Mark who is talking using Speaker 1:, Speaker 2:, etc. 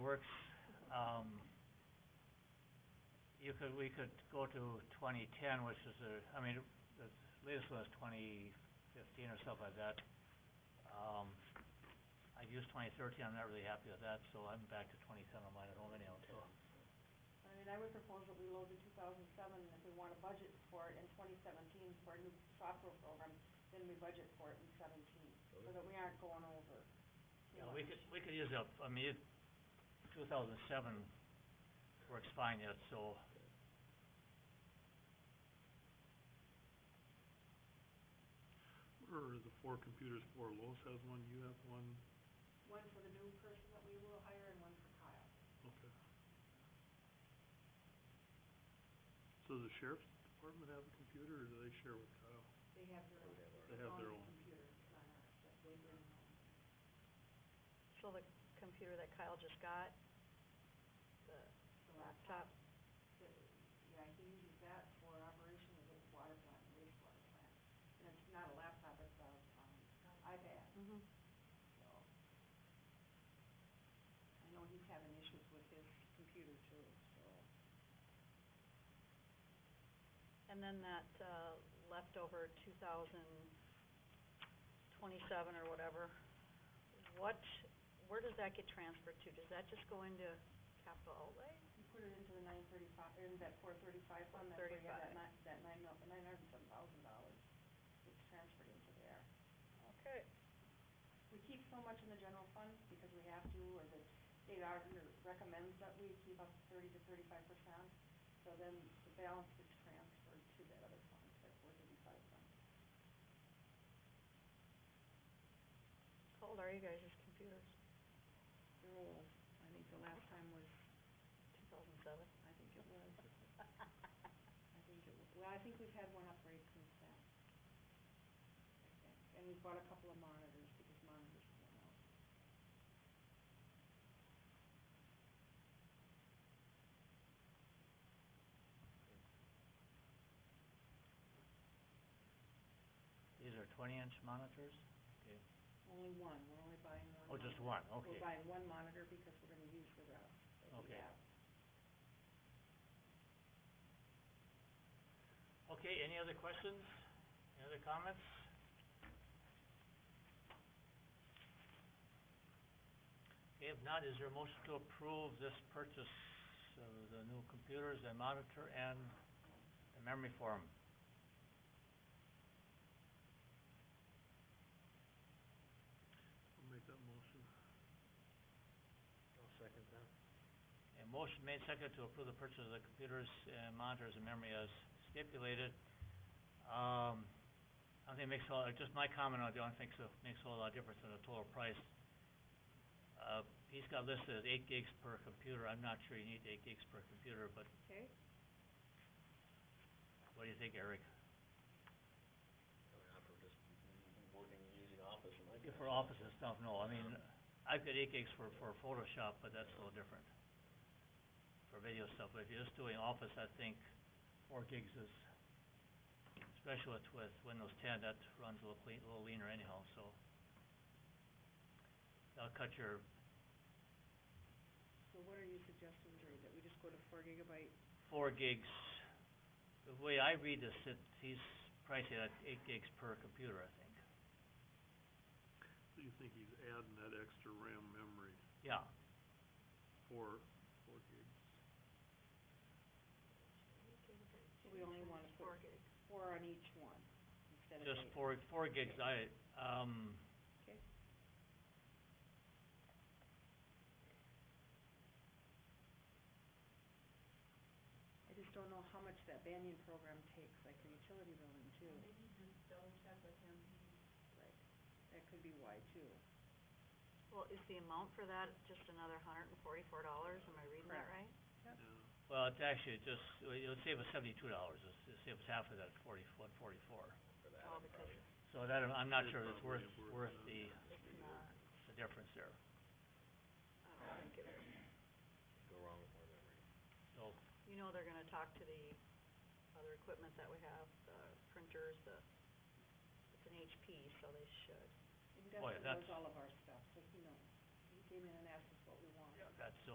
Speaker 1: works, um, you could, we could go to twenty-ten, which is the, I mean, the latest was twenty-fifteen or stuff like that. Um, I've used twenty-thirteen, I'm not really happy with that, so I'm back to twenty-ten on mine at home anyhow, so.
Speaker 2: I mean, I would propose that we load the two thousand seven, and if we want to budget for it in twenty seventeen for a new software program, then we budget for it in seventeen, so that we aren't going over. too
Speaker 1: Yeah, we
Speaker 2: much.
Speaker 1: could, we could use up, I mean, two thousand seven works fine yet, so.
Speaker 3: What are the four computers for? Lois has one, you have one,
Speaker 2: One for the new person that we will hire and one for Kyle.
Speaker 3: okay. So does the sheriff's department have a computer, or do they share with Kyle?
Speaker 2: They have their own.
Speaker 3: They have their own.
Speaker 2: Computer, it's not ours, that they bring home.
Speaker 4: So the computer that Kyle just got, the
Speaker 2: The
Speaker 4: laptop,
Speaker 2: that- Yeah, he uses that for operation of the water plant, and wastewater plant. And it's not a laptop, it's a, um, iPad,
Speaker 4: mm-hmm,
Speaker 2: so. I know he's having issues with his computer too, so.
Speaker 4: and then that, uh, leftover two thousand twenty-seven or whatever, what, where does that get transferred to? Does that just go into capital outlay?
Speaker 2: You put it into the nine thirty-five, in that four thirty-five fund, that's where you have that
Speaker 4: 435.
Speaker 2: nine, that nine mil, nine hundred and some thousand dollars. It's transferred into there.
Speaker 4: Okay.
Speaker 2: We keep so much in the general fund because we have to, or the state auditor recommends that we keep up thirty to thirty-five percent. So then the balance gets transferred to that other fund, that four thirty-five fund.
Speaker 4: How old are you guys' computers?
Speaker 2: They're old. I think the last time was,
Speaker 4: Two thousand seven?
Speaker 2: I think it was, I think it was, well, I think we've had one upgrade since then. I think. And we bought a couple of monitors because monitors went out.
Speaker 1: These are twenty-inch monitors? Okay.
Speaker 2: Only one, we're only buying one.
Speaker 1: Oh, just
Speaker 2: monitor.
Speaker 1: one, okay.
Speaker 2: We're buying one monitor because we're gonna use the rest that we
Speaker 1: Okay.
Speaker 2: have.
Speaker 1: Okay, any other questions? Any other comments? Okay, if not, is there a motion to approve this purchase of the new computers and monitor and the memory forum?
Speaker 3: I'll make that motion.
Speaker 5: I'll second that.
Speaker 1: A motion made second to approve the purchase of the computers and monitors and memory as stipulated. Um, I don't think it makes a lot, uh, just my comment on it, I don't think so, makes a whole lot of difference in the total price. Uh, he's got listed as eight gigs per computer, I'm not sure you need eight gigs per computer, but
Speaker 2: Okay.
Speaker 1: what do you think, Eric?
Speaker 5: I mean, I'm for just working, using office and like. Um,
Speaker 1: For office and stuff, no, I mean, I've got eight gigs for, for Photoshop, but that's a little different. For video stuff, but if you're just doing office, I think four gigs is, especially with, with Windows ten, that runs a little clean, a little leaner anyhow, so. That'll cut your,
Speaker 2: So what are you suggesting, Jerry, that we just go to four gigabyte?
Speaker 1: four gigs, the way I read this, it, he's pricing at eight gigs per computer, I think,
Speaker 3: So you think he's adding that extra RAM memory
Speaker 1: yeah.
Speaker 3: for four gigs?
Speaker 2: So we only wanna put-
Speaker 4: Four gigs.
Speaker 2: Four on each one, instead of eight.
Speaker 1: Just four, four gigs, I, um.
Speaker 2: Okay. I just don't know how much that Banyan program takes, like the utility building too. Maybe just double check with him. Right, that could be why too.
Speaker 4: Well, is the amount for that just another hundred and forty-four dollars? Am I reading that
Speaker 2: Correct.
Speaker 4: right?
Speaker 2: Yep.
Speaker 3: Yeah.
Speaker 1: Well, it's actually just, well, it'll save us seventy-two dollars, it'll save us half of that forty, one forty-four.
Speaker 5: For that,
Speaker 4: Oh,
Speaker 5: I'm
Speaker 4: because
Speaker 5: probably-
Speaker 1: So that, I'm not
Speaker 3: It's
Speaker 1: sure it's worth,
Speaker 3: probably worth
Speaker 1: worth
Speaker 3: it.
Speaker 1: the,
Speaker 4: It's not,
Speaker 1: the difference there,
Speaker 4: I don't think it is.
Speaker 5: Go wrong with my memory.
Speaker 1: so.
Speaker 4: You know they're gonna talk to the other equipment that we have, the printers, the, it's an HP, so they should.
Speaker 2: He
Speaker 1: Boy,
Speaker 2: definitely
Speaker 1: that's-
Speaker 2: knows all of our stuff, so he knows. He came in and asked us what we wanted.
Speaker 1: That's,